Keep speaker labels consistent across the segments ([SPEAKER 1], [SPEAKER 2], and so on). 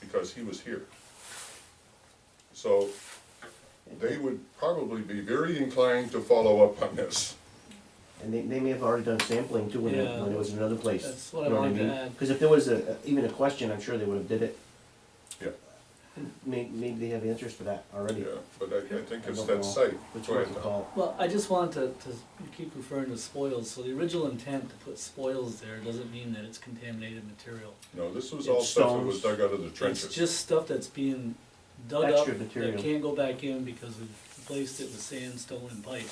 [SPEAKER 1] because he was here. So they would probably be very inclined to follow up on this.
[SPEAKER 2] And they, they may have already done sampling too when it,
[SPEAKER 3] Yeah.
[SPEAKER 2] when it was in another place.
[SPEAKER 3] That's what I
[SPEAKER 2] You know
[SPEAKER 3] wanted to
[SPEAKER 2] mean?
[SPEAKER 3] add.
[SPEAKER 2] Cause if there was a, even a question, I'm sure they would have did it.
[SPEAKER 1] Yeah.
[SPEAKER 2] May, maybe they have answers for that already.
[SPEAKER 1] Yeah, but I, I think
[SPEAKER 2] I
[SPEAKER 1] it's
[SPEAKER 2] don't know
[SPEAKER 1] that site.
[SPEAKER 2] Which
[SPEAKER 1] Go
[SPEAKER 2] one's
[SPEAKER 1] ahead,
[SPEAKER 2] the
[SPEAKER 1] Tom.
[SPEAKER 2] call?
[SPEAKER 3] Well, I just want to, to, you keep referring to spoils, so the original intent to put spoils there doesn't mean that it's contaminated material.
[SPEAKER 1] No, this was all
[SPEAKER 2] It's
[SPEAKER 1] stuff that was
[SPEAKER 2] stones.
[SPEAKER 1] dug out of the
[SPEAKER 3] It's
[SPEAKER 1] trenches.
[SPEAKER 3] just stuff that's being dug up,
[SPEAKER 2] Extra material.
[SPEAKER 3] that can't go back in because we've replaced it with sand, stone, and pipe.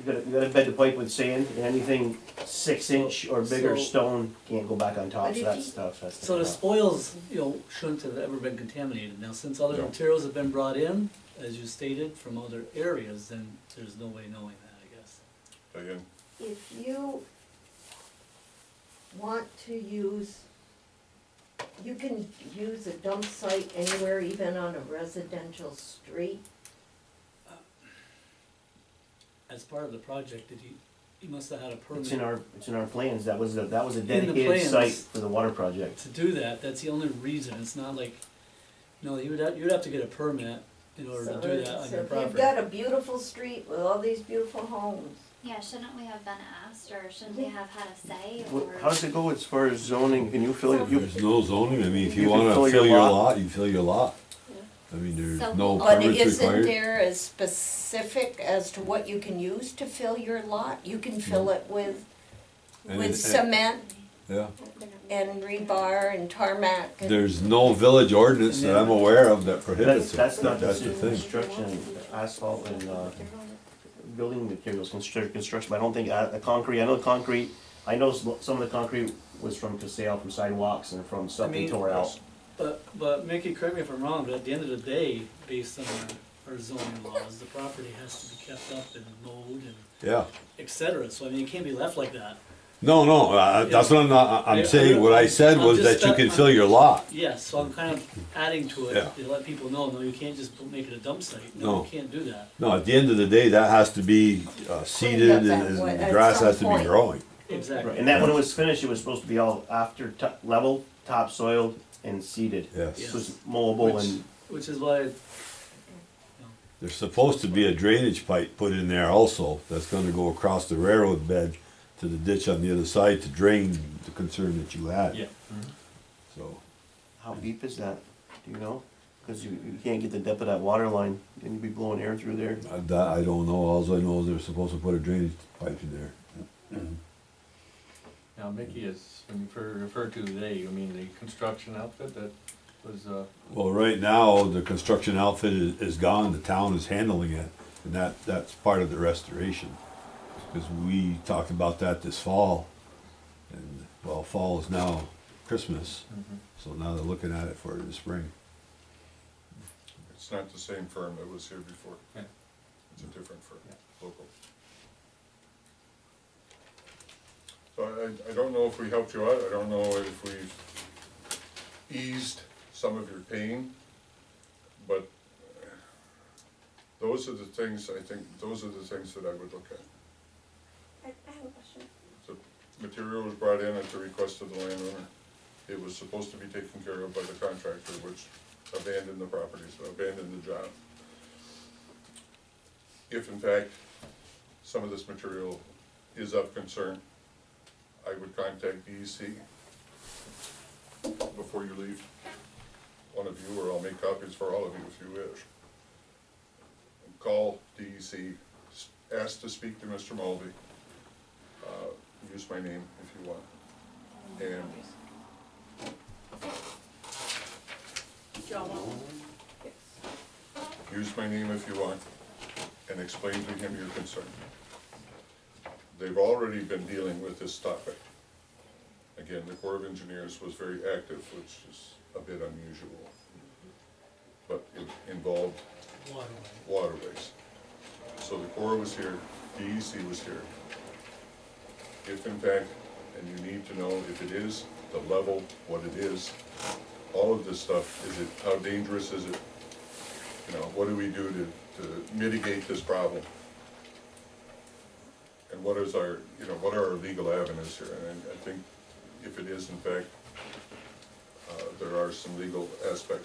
[SPEAKER 2] You gotta, you gotta bed the pipe with sand, and anything six inch or bigger
[SPEAKER 3] So-
[SPEAKER 2] stone can't go back on top,
[SPEAKER 4] But
[SPEAKER 2] so
[SPEAKER 4] if
[SPEAKER 2] that
[SPEAKER 4] you-
[SPEAKER 2] stuff, that's.
[SPEAKER 3] So the
[SPEAKER 2] tough.
[SPEAKER 3] spoils, you know, shouldn't have ever been contaminated. Now, since other
[SPEAKER 1] No.
[SPEAKER 3] materials have been brought in, as you stated, from other areas, then there's no way knowing that, I guess.
[SPEAKER 1] Diane,
[SPEAKER 4] If you want to use, you can use a dump site anywhere, even on a residential street.
[SPEAKER 3] As part of the project, did you, you must have had a permit
[SPEAKER 2] It's in our, it's in our plans, that was, the that was a
[SPEAKER 3] the
[SPEAKER 2] dedicated site
[SPEAKER 3] plans.
[SPEAKER 2] for the water project.
[SPEAKER 3] to do that. That's the only reason. It's not like, you know, you would have, you'd have to get a permit in order to
[SPEAKER 4] So
[SPEAKER 3] do that on
[SPEAKER 4] if-
[SPEAKER 3] your
[SPEAKER 4] So if you've
[SPEAKER 3] property.
[SPEAKER 4] got a beautiful street with all these beautiful homes,
[SPEAKER 5] Yeah, shouldn't we have been asked, or shouldn't we have had a say,
[SPEAKER 2] Wha-
[SPEAKER 5] or?
[SPEAKER 2] How does it go as far as zoning, can you fill it, you,
[SPEAKER 6] There's no zoning, I mean, if
[SPEAKER 2] You
[SPEAKER 6] you
[SPEAKER 2] can
[SPEAKER 6] wanna
[SPEAKER 2] fill your
[SPEAKER 6] fill your
[SPEAKER 2] lot.
[SPEAKER 6] lot, you fill your lot.
[SPEAKER 4] Yeah.
[SPEAKER 6] I mean,
[SPEAKER 5] So-
[SPEAKER 6] there's no
[SPEAKER 4] but
[SPEAKER 6] permits
[SPEAKER 4] isn't
[SPEAKER 6] required.
[SPEAKER 4] there as specific as to what you can use to fill your lot? You can fill it with,
[SPEAKER 6] Mm. And
[SPEAKER 4] with
[SPEAKER 6] it-
[SPEAKER 4] cement
[SPEAKER 6] Yeah,
[SPEAKER 4] and rebar and tarmac and.
[SPEAKER 6] there's no village ordinance that I'm aware of that
[SPEAKER 2] that's,
[SPEAKER 6] prohibits it.
[SPEAKER 2] that's not
[SPEAKER 6] That's the
[SPEAKER 2] just
[SPEAKER 6] thing.
[SPEAKER 2] construction, asphalt and, uh, building materials, construction, construction, but I don't think, uh, the concrete, I know concrete, I know s- some of the concrete was from Casale, from sidewalks and from stuff
[SPEAKER 3] I
[SPEAKER 2] they
[SPEAKER 3] mean-
[SPEAKER 2] tore out.
[SPEAKER 3] But, but Mickey, correct me if I'm wrong, but at the end of the day, based on our- our zoning laws, the property has to be kept up and mowed and
[SPEAKER 6] Yeah,
[SPEAKER 3] et cetera. So I mean, it can't be left like that.
[SPEAKER 6] no, no, uh, that's what I'm not, I-
[SPEAKER 3] Yeah.
[SPEAKER 6] I'm saying, what I said
[SPEAKER 3] I'm
[SPEAKER 6] was
[SPEAKER 3] just
[SPEAKER 6] that you
[SPEAKER 3] not-
[SPEAKER 6] can fill your lot.
[SPEAKER 3] Yes, so I'm kind of adding to
[SPEAKER 6] Yeah.
[SPEAKER 3] it, to let people know, no, you can't just make it a dump site. No,
[SPEAKER 6] No.
[SPEAKER 3] you can't do that.
[SPEAKER 6] No, at the end of the day, that has to be uh, seeded and
[SPEAKER 4] that
[SPEAKER 6] and
[SPEAKER 4] way
[SPEAKER 6] the
[SPEAKER 4] at
[SPEAKER 6] grass
[SPEAKER 4] some
[SPEAKER 6] has to be
[SPEAKER 4] point.
[SPEAKER 6] growing.
[SPEAKER 2] Right,
[SPEAKER 3] Exactly.
[SPEAKER 2] and that, when it was finished, it was supposed to be all after to- level, topsoiled and seeded.
[SPEAKER 6] Yes.
[SPEAKER 2] This was mowable and,
[SPEAKER 3] Which is why,
[SPEAKER 6] There's supposed to be a drainage pipe put in there also, that's gonna go across the railroad bed to the ditch on the other side to drain the concern that you had.
[SPEAKER 3] yeah.
[SPEAKER 6] So,
[SPEAKER 2] how deep is that, do you know? Cause you, you can't get the depth of that water line, and you'd be blowing air through there.
[SPEAKER 6] I- that, I don't know, alls I know is they're supposed to put a drainage pipe in there.
[SPEAKER 7] Now, Mickey is, when you refer- refer to they, you mean the construction outfit that was, uh,
[SPEAKER 6] Well, right now, the construction outfit is, is gone, the town is handling it, and that, that's part of the restoration. Cause we talked about that this fall, and, well, fall is now Christmas, so now they're looking at it for the spring.
[SPEAKER 1] it's not the same firm that was here before.
[SPEAKER 7] Yeah.
[SPEAKER 1] It's a different firm,
[SPEAKER 7] Yeah.
[SPEAKER 1] local. So I, I don't know if we helped you out, I don't know if we've eased some of your pain, but uh, those are the things, I think, those are the things that I would look at.
[SPEAKER 8] I, I have a question.
[SPEAKER 1] The material was brought in at the request of the landowner. It was supposed to be taken care of by the contractor, which abandoned the property, so abandoned the job. If in fact, some of this material is of concern, I would contact DEC before you leave. One of you, or I'll make copies for all of you if you wish. Call DEC, s- ask to speak to Mr. Mulvey uh, use my name if you want. And use my name if you want, and explain to him your concern. They've already been dealing with this topic. Again, the Corps of Engineers was very active, which is a bit unusual. But it involved waterways. So the Corps was here, DEC was here. If in fact, and you need to know if it is, the level, what it is, all of this stuff, is it, how dangerous is it? You know, what do we do to, to mitigate this problem? And what is our, you know, what are our legal avenues here? And I- I think if it is in fact, uh, there are some legal aspects